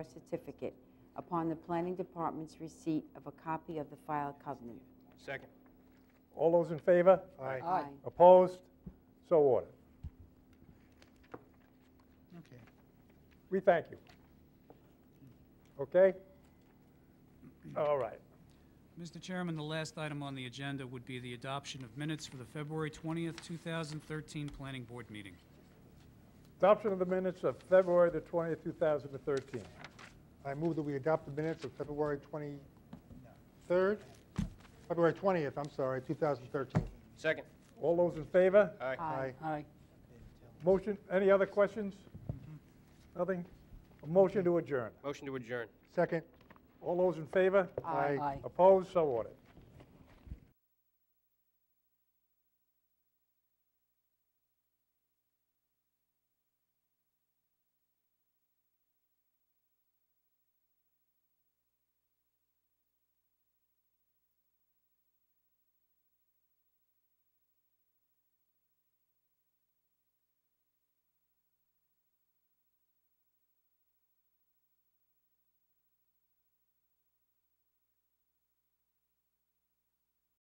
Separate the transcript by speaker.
Speaker 1: certificate upon the planning department's receipt of a copy of the file covenant.
Speaker 2: Second.
Speaker 3: All those in favor?
Speaker 1: Aye.
Speaker 3: Opposed? So ordered.
Speaker 4: Okay.
Speaker 3: We thank you. Okay? All right.
Speaker 4: Mr. Chairman, the last item on the agenda would be the adoption of minutes for the February 20th, 2013 Planning Board meeting.
Speaker 3: Adoption of the minutes of February the 20th, 2013.
Speaker 5: I move that we adopt the minutes of February 23rd, February 20th, I'm sorry, 2013.
Speaker 2: Second.
Speaker 3: All those in favor?
Speaker 2: Aye.
Speaker 5: Aye.
Speaker 1: Aye.
Speaker 3: Motion, any other questions?
Speaker 5: Mm-hmm.
Speaker 3: Nothing? A motion to adjourn.
Speaker 2: Motion to adjourn.
Speaker 5: Second.
Speaker 3: All those in favor?
Speaker 5: Aye.
Speaker 3: Opposed? So ordered.